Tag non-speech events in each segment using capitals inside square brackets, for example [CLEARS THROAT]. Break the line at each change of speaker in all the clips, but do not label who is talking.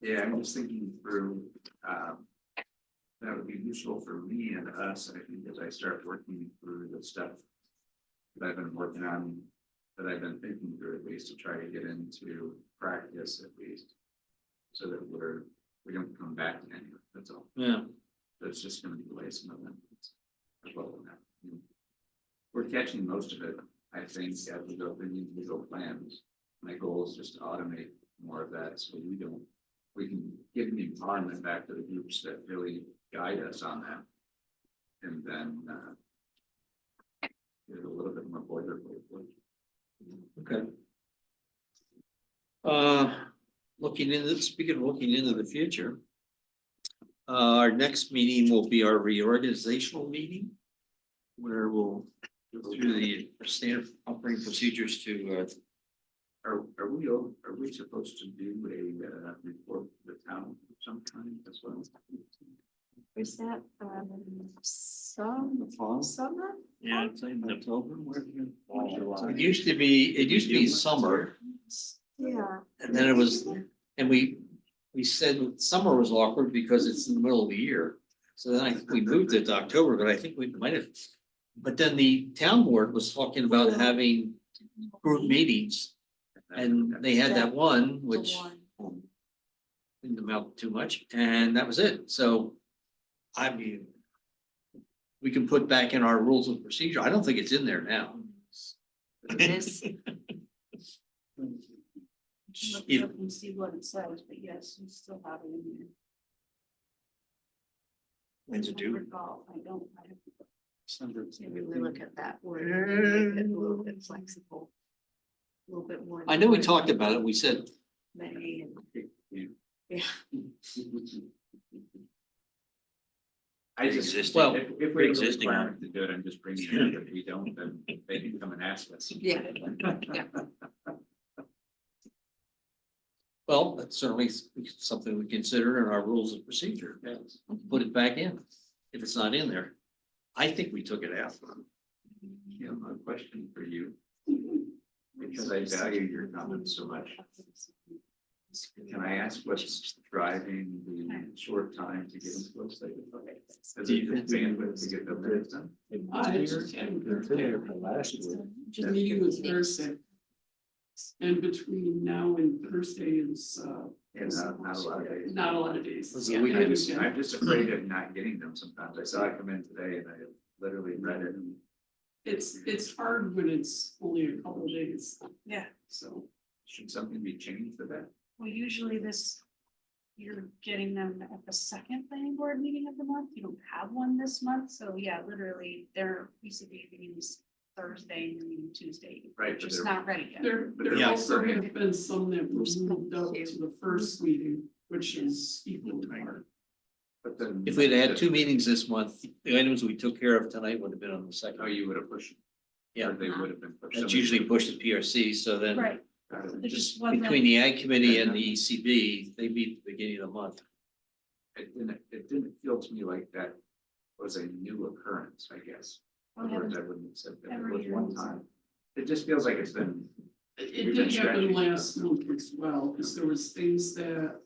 Yeah, I'm just thinking through, um. That would be useful for me and us, I think, as I start working through the stuff. That I've been working on, that I've been thinking through at least to try to get into practice at least. So that we're, we don't come back to any, of it, that's all,
Yeah,
that's just gonna delay some of them. as well on that. We're catching most of it, I think, as we go through the individual plans. My goal is just to automate more of that, so we don't, we can give the environment back to the groups that really guide us on that. And then, uh. Get a little bit more boilerplate.
okay. Uh, looking into, speaking of looking into the future. Uh, our next meeting will be our reorganizational meeting. Where we'll go through the standard operating procedures to, uh,
Are, are we, all- are we supposed to do a, uh, report to the town of some kind as well?
Where's that, um, some,
the fall.
summer?
Yeah, it's in October, where
Fall.
It used uh, to be, it used to be summer,
Yeah,
and then it was, and we, we said summer was awkward because it's in the middle of the year. So then I, think we moved it to October, but I think we might have, but then the town board was talking about having group meetings. And they had that one,
the
which
one.
didn't amount to much, and that was it, so. I mean. We can put back in our rules of procedure, I don't think it's in there now.
This, look
If-
up and see what it says, but yes, we still have it in there.
When's it
I
due?
recall, I don't, I have to Mm.
Maybe
really look at that word, and make it a little bit flexible. A little bit more.
[LAUGHS] I know we talked about it, we said,
May and.
I just, if,
Well,
if we have a
pre-existing.
requirement to do it, I'm just bringing it up. If we don't, then they can come and ask us.
Yeah.
well, that's certainly something we consider in our rules of procedure.
Yes.
Put it back in, if it's not in there. I think we took it out.
You know, a question for you, because I value your comments so much. Can I ask what's driving the short time to get into those things? Is it just bandwidth to get the minutes done?
I just had Just meeting was Thursday. And between now and Thursday is uh
And not, not a lot of days.
not a lot of days.
This is
Yeah,
a weekend.
I
I'm just,
understand.
I'm just afraid of not getting them sometimes. I saw it come in today and I literally read it and
It's it's hard when it's only a couple of days,
Yeah,
so.
should something be changed for that?
well, usually this, you're getting them at the second planning board meeting of the month, you don't have one this month, so yeah, literally, they're, we should be meetings Thursday, and meeting Tuesday.
Right, but
Just
they're-
not ready yet.
There there
Yeah.
also have been some that were moved up to the first meeting, which is equally hard.
But then.
If we'd had two meetings this month, the items we took care of tonight would have been on the
Oh,
second.
you would have pushed.
Yeah.
Or They would have been pushed.
That's usually pushed to PRC, so then.
Right,
Got it.
there just wasn't.
Between the ag committee and the ECB, they meet at the beginning of the month.
It didn't, it didn't feel to me like that was a new occurrence, I guess.
Oh, yeah.
Otherwise, I wouldn't have said that it
Every
was
year
one
it's-
time. It just feels like it's been,
It
We've
it
been
did happen
strategy.
last month as well, because there was things that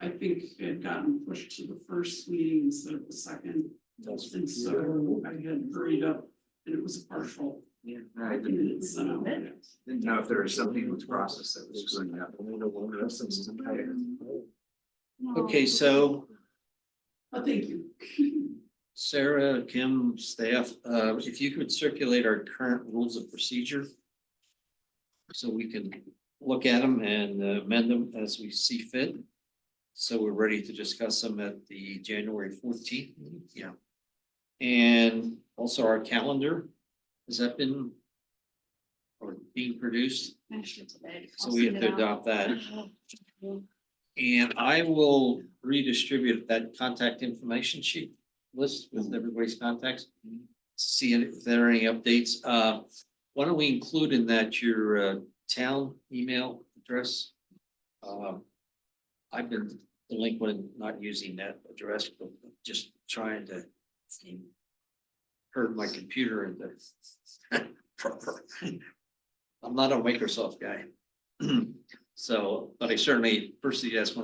I think had gotten pushed to the first meeting instead of the second. And so I had hurried up and it was a partial.
I
and
didn't,
it's, uh,
didn't know if there was something with process that was screwing up.
No.
Okay, so
Oh, thank you. [LAUGHS]
Sarah, Kim, staff, uh, if you could circulate our current rules of procedure. So we can look at them and uh, amend them as we see fit. So we're ready to discuss them at the January fourteenth, yeah. And also our calendar, has that been? Or being produced,
Actually, today,
so
I'll
we have
send
to
it out.
adopt that. And I will redistribute that contact information sheet list with everybody's contacts. See if there are any updates. Uh, why don't we include in that your uh, town email address? Um, I've been delinquent, in not using that address, but just trying to herd my computer into proper. [LAUGHS] [CLEARS THROAT] I'm not a Microsoft guy. So, but I certainly, first thing you ask when